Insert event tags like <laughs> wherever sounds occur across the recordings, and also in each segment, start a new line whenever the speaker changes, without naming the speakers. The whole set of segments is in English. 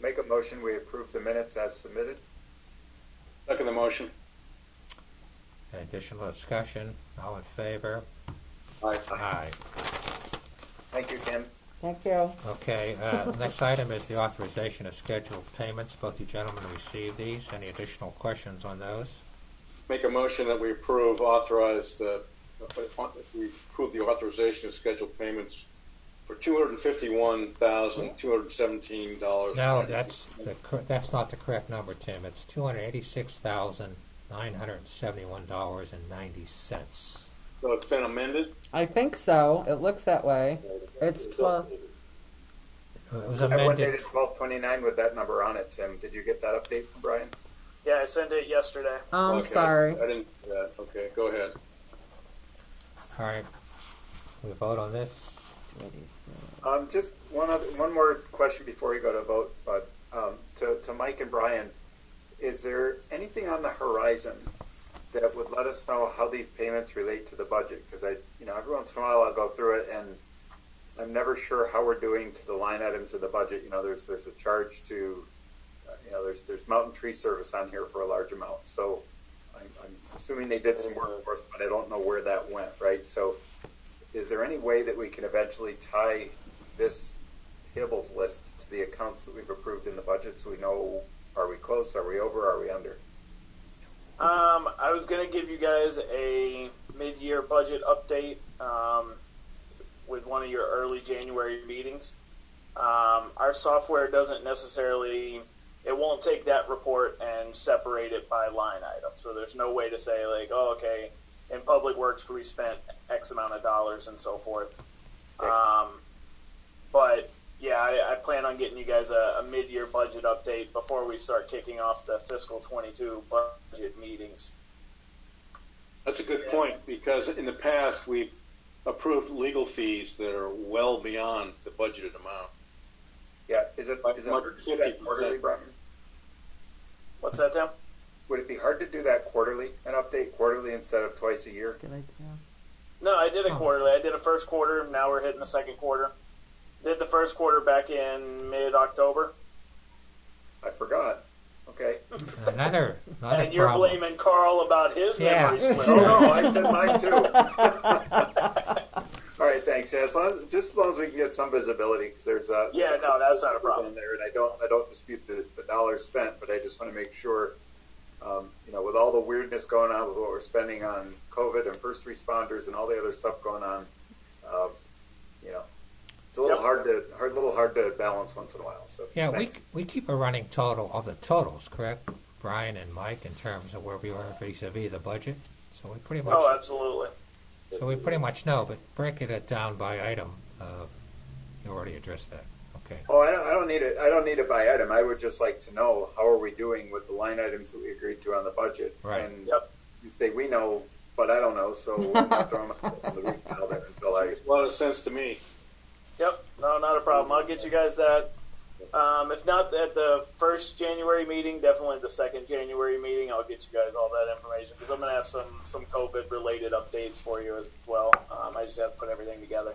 Make a motion, we approve the minutes as submitted.
Second the motion.
Additional discussion, all in favor?
Aye.
Aye.
Thank you, Ken.
Thank you.
Okay, uh, next item is the authorization of scheduled payments. Both you gentlemen received these. Any additional questions on those?
Make a motion that we approve authorize the, uh, we approve the authorization of scheduled payments for two hundred and fifty-one thousand, two hundred and seventeen dollars.
No, that's, the cor- that's not the correct number, Tim. It's $286,971.90.
So it's been amended?
I think so. It looks that way. It's twelve.
It was
That one
amended,
dated twelve twenty-nine with that number on it, Tim. Did you get that update from Brian?
Yeah, I sent it yesterday.
I'm
Okay.
sorry.
I didn't, yeah, okay, go ahead.
all right. We vote on this?
Um, just one other, one more question before we go to vote, but, um, to, to Mike and Brian, is there anything on the horizon that would let us know how these payments relate to the budget? Cause I, you know, every once in a while I'll go through it and I'm never sure how we're doing to the line items of the budget. You know, there's, there's a charge to, uh, you know, there's, there's mountain tree service on here for a large amount. So I'm, I'm assuming they did some work for us, but I don't know where that went, right? So is there any way that we can eventually tie this payables list to the accounts that we've approved in the budget so we know are we close, are we over, are we under?
Um, I was gonna give you guys a mid-year budget update um, with one of your early January meetings. Um, our software doesn't necessarily; it won't take that report and separate it by line item. So there's no way to say like, oh, okay, in public works we spent X amount of dollars and so forth. Um, but yeah, I, I plan on getting you guys a, a mid-year budget update before we start kicking off the fiscal 22 budget meetings.
That's a good point, because in the past, we've approved legal fees that are well beyond the budgeted amount.
Yeah, is it, is it hard to do that
150%.
quarterly, Brian?
What's that, Tim?
Would it be hard to do that quarterly, an update quarterly instead of twice a year?
Good idea.
No, I did it
Oh.
quarterly. I did a first quarter. Now we're hitting the second quarter. Did the first quarter back in mid-October,
I forgot. Okay.
Another, another
and you're
problem.
blaming Carl about his
Yeah.
memory slip.
Oh, no,
<laughs>
I said mine too. All right, thanks. Yeah, as long, as- just as long as we can get some visibility, because there's a. there's
Yeah,
a
no, that's not a problem.
on there, and I don't, I don't dispute the, the dollars spent, but I just want to make sure, um, you know, with all the weirdness going on with what we're spending on COVID and first responders and all the other stuff going on, um, you know, it's a little
Yep.
hard to, hard, little hard to balance once in a while. So
Yeah, we,
thanks.
we keep a running total of the totals, correct, Brian and Mike, in terms of where we are vis-à-vis the budget? So we pretty much.
Oh, absolutely.
So we pretty much know, but breaking it down by item, uh, you already addressed that, okay.
Oh, I don't, I don't need it. I don't need it by item. I would just like to know how are we doing with the line items that we agreed to on the budget.
Right.
And
Yep.
you say we know, but I don't know, so I'm not throwing <laughs> myself on the roof now there until I.
A lot of sense to me.
Yep, no, not a problem. I'll get you guys that. Um, if not at the first January meeting, definitely the second January meeting. I'll get you guys all that information because I'm gonna have some some COVID related updates for you as well. Um, I just have to put everything together.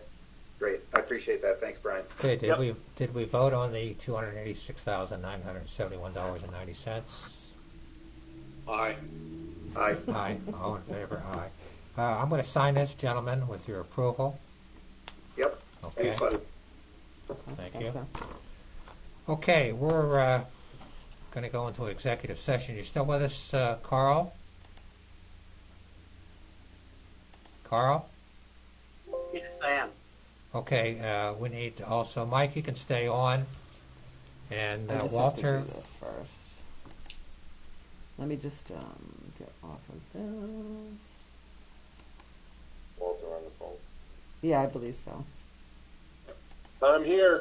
Great. I appreciate that. Thanks, Brian.
Okay, did
Yep.
we, did we vote on the two hundred and eighty-six thousand, nine hundred and seventy-one dollars and ninety cents?
Aye.
Aye.
<laughs>
Aye, all in favor, aye. Uh, I'm gonna sign this, gentlemen, with your approval,
Yep.
okay?
Thanks, buddy.
Thank you. Okay, we're, uh, gonna go into executive session. You still with us, uh, Carl? Carl?
Yes, I am.
Okay, uh, we need to also, Mike, you can stay on. And
I
uh,
just
Walter,
have to do this first. Let me just um, get off of this. Walter on the phone. Yeah, I believe so.
I'm here.